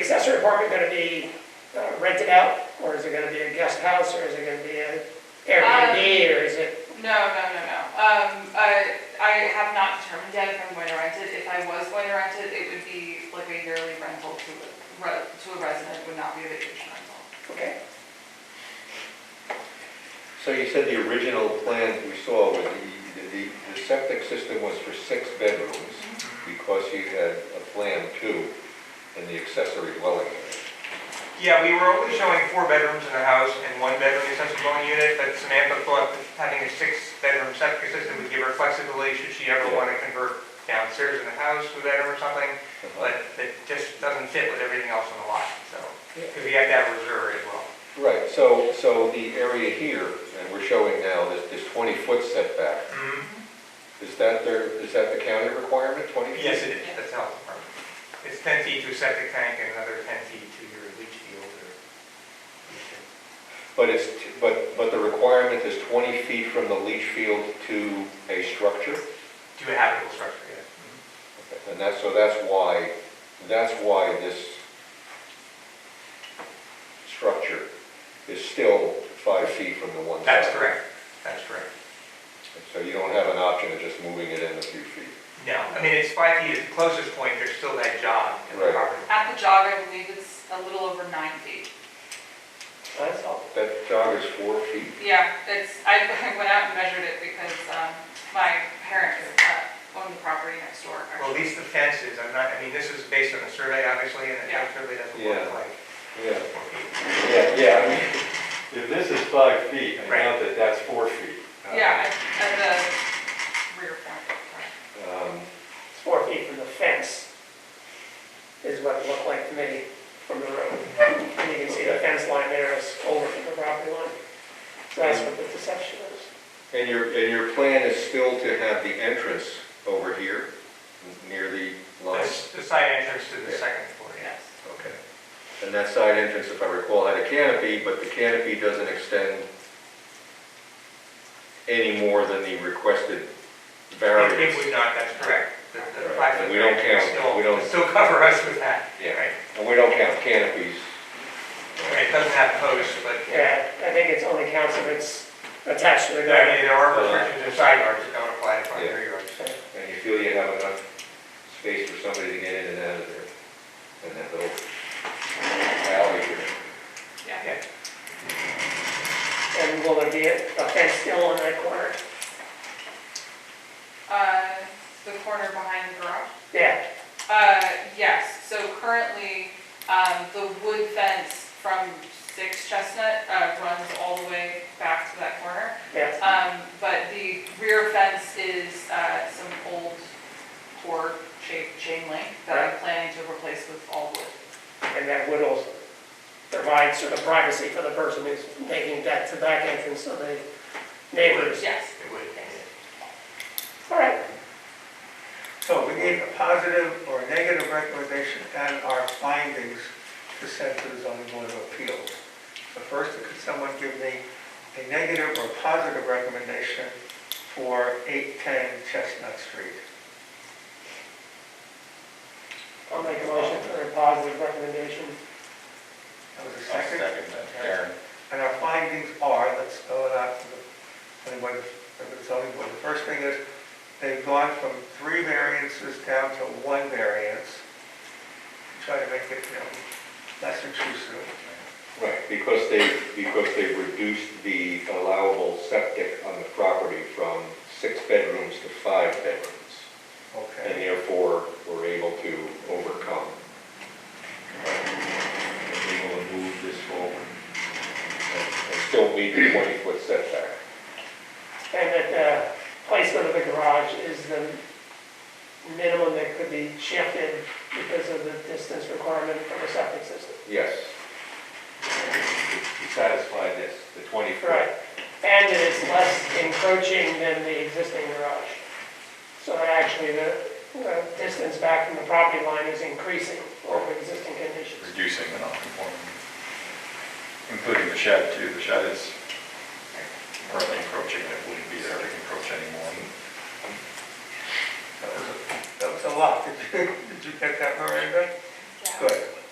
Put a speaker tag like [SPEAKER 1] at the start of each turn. [SPEAKER 1] accessory apartment gonna be uh, rented out, or is it gonna be a guest house, or is it gonna be an Airbnb, or is it,
[SPEAKER 2] No, no, no, no. Um, I, I have not determined yet if I'm going to rent it. If I was going to rent it, it would be like a yearly rental to a, re- to a resident, would not be a vacation rental.
[SPEAKER 1] okay?
[SPEAKER 3] So you said the original plan that we saw was the, the, the septic system was for six bedrooms because you had a plan two in the accessory dwelling area.
[SPEAKER 4] Yeah, we were only showing four bedrooms in the house and one bedroom accessory dwelling unit, but Samantha thought that having a six-bedroom septic system would give her flexibility should she ever
[SPEAKER 3] Yeah.
[SPEAKER 4] want to convert downstairs in the house to a bedroom or something, but it just doesn't fit with everything else on the lot, so, because we have to have a reserve as well.
[SPEAKER 3] Right, so, so the area here, and we're showing now this, this twenty-foot setback, is that their, is that the county requirement, twenty feet?
[SPEAKER 4] Yes, it is, that's health department. It's 10 feet to a septic tank and another 10 feet to your leach field or...
[SPEAKER 3] But it's, t- but, but the requirement is twenty feet from the leach field to a structure?
[SPEAKER 4] To a habitable structure, yeah.
[SPEAKER 3] And that's, so that's why, that's why this structure is still five feet from the one side.
[SPEAKER 4] That's correct, that's correct.
[SPEAKER 3] So you don't have an option of just moving it in a few feet.
[SPEAKER 4] No, I mean, it's five feet at the closest point, there's still that jog in the
[SPEAKER 3] Right.
[SPEAKER 4] property.
[SPEAKER 2] At the jog, I believe it's a little over nine feet.
[SPEAKER 1] That's all.
[SPEAKER 3] That jog is four feet.
[SPEAKER 2] Yeah, it's, I I went out and measured it because, um, my parents uh, own the property next door.
[SPEAKER 4] Well, at
[SPEAKER 2] actually.
[SPEAKER 4] least the fences, I'm not, I mean, this is based on a survey, obviously, and the town survey doesn't
[SPEAKER 3] Yeah.
[SPEAKER 4] look like
[SPEAKER 3] Yeah.
[SPEAKER 4] four feet.
[SPEAKER 3] Yeah, yeah, I mean,
[SPEAKER 5] If this is five feet, I doubt that that's four feet.
[SPEAKER 3] Oh,
[SPEAKER 5] Uh,
[SPEAKER 2] Yeah, at at the rear point. right.
[SPEAKER 3] um,
[SPEAKER 1] It's four feet from the fence, is what it looked like to me from the road. And you can see the fence line there is over from the property line. So that's what the deception is.
[SPEAKER 3] and your, and your plan is still to have the entrance over here, n- near the line?
[SPEAKER 4] That's the side entrance to the
[SPEAKER 3] Yeah.
[SPEAKER 4] second floor, yeah.
[SPEAKER 2] Yes.
[SPEAKER 3] Okay. And that side entrance, if I recall, had a canopy, but the canopy doesn't extend any more than the requested
[SPEAKER 4] It-
[SPEAKER 3] variance.
[SPEAKER 4] It would not, that's correct. The- the
[SPEAKER 3] Right,
[SPEAKER 4] five
[SPEAKER 3] and
[SPEAKER 4] foot
[SPEAKER 3] we don't
[SPEAKER 4] variance
[SPEAKER 3] count-
[SPEAKER 4] still-
[SPEAKER 3] we don't-
[SPEAKER 4] Still cover us with that.
[SPEAKER 3] Yeah.
[SPEAKER 4] Right,
[SPEAKER 3] And we don't count canopies.
[SPEAKER 4] Right, it doesn't have posts, but,
[SPEAKER 1] Yeah, I think it's only counts if it's attached to the
[SPEAKER 4] I mean,
[SPEAKER 1] ground.
[SPEAKER 4] there are restrictions in side yards that don't apply to front
[SPEAKER 3] Yeah.
[SPEAKER 4] rear yards.
[SPEAKER 3] And you feel you have enough space for somebody to get in and out of there, and that little alley here.
[SPEAKER 2] Yeah.
[SPEAKER 1] And will there be a a fence still on that corner?
[SPEAKER 2] Uh, the corner behind the garage.
[SPEAKER 1] Yeah,
[SPEAKER 2] Uh, yes, so currently, um, the wood fence from Six Chestnut, uh, runs all the way back to that corner.
[SPEAKER 1] yeah.
[SPEAKER 2] Um, but the rear fence is, uh, some old core shaped chain link that I'm planning to replace with all wood.
[SPEAKER 1] And that would also provide sort of privacy for the person who's making that to back entrance of the neighbors.
[SPEAKER 2] Yes.
[SPEAKER 4] It would, yeah.
[SPEAKER 1] All right,
[SPEAKER 6] So we need a positive or a negative recommendation and our findings to send to the zoning board of appeals. So first, could someone give me a negative or positive recommendation for 810 Chestnut Street?
[SPEAKER 1] I'll make a motion for a positive recommendation.
[SPEAKER 6] That was a
[SPEAKER 3] I'll
[SPEAKER 6] second.
[SPEAKER 3] that. Karen.
[SPEAKER 6] And our findings are, let's spell it out to the, anybody, to the zoning board. The first thing is, they've gone from three variances down to one variance. Try to make it, you know, less intrusive.
[SPEAKER 3] Right, because they, because they reduced the allowable septic on the property from six bedrooms to five bedrooms.
[SPEAKER 6] Okay.
[SPEAKER 3] and therefore were able to overcome. And Able to move this forward and and still meet the twenty-foot setback.
[SPEAKER 1] And that the placement of the garage is the minimum that could be shifted because of the distance requirement from the septic system.
[SPEAKER 3] Yes. To satisfy this, the
[SPEAKER 1] Right.
[SPEAKER 3] twenty-foot.
[SPEAKER 1] And that it's less encroaching than the existing garage. So that actually the, the distance back from the property line is increasing over existing conditions.
[SPEAKER 7] reducing the non-conforming, including the shed too. The shed is currently encroaching, and it wouldn't be there to encroach anymore.
[SPEAKER 6] That was a lot. Did you, did you get that, Miranda? Good.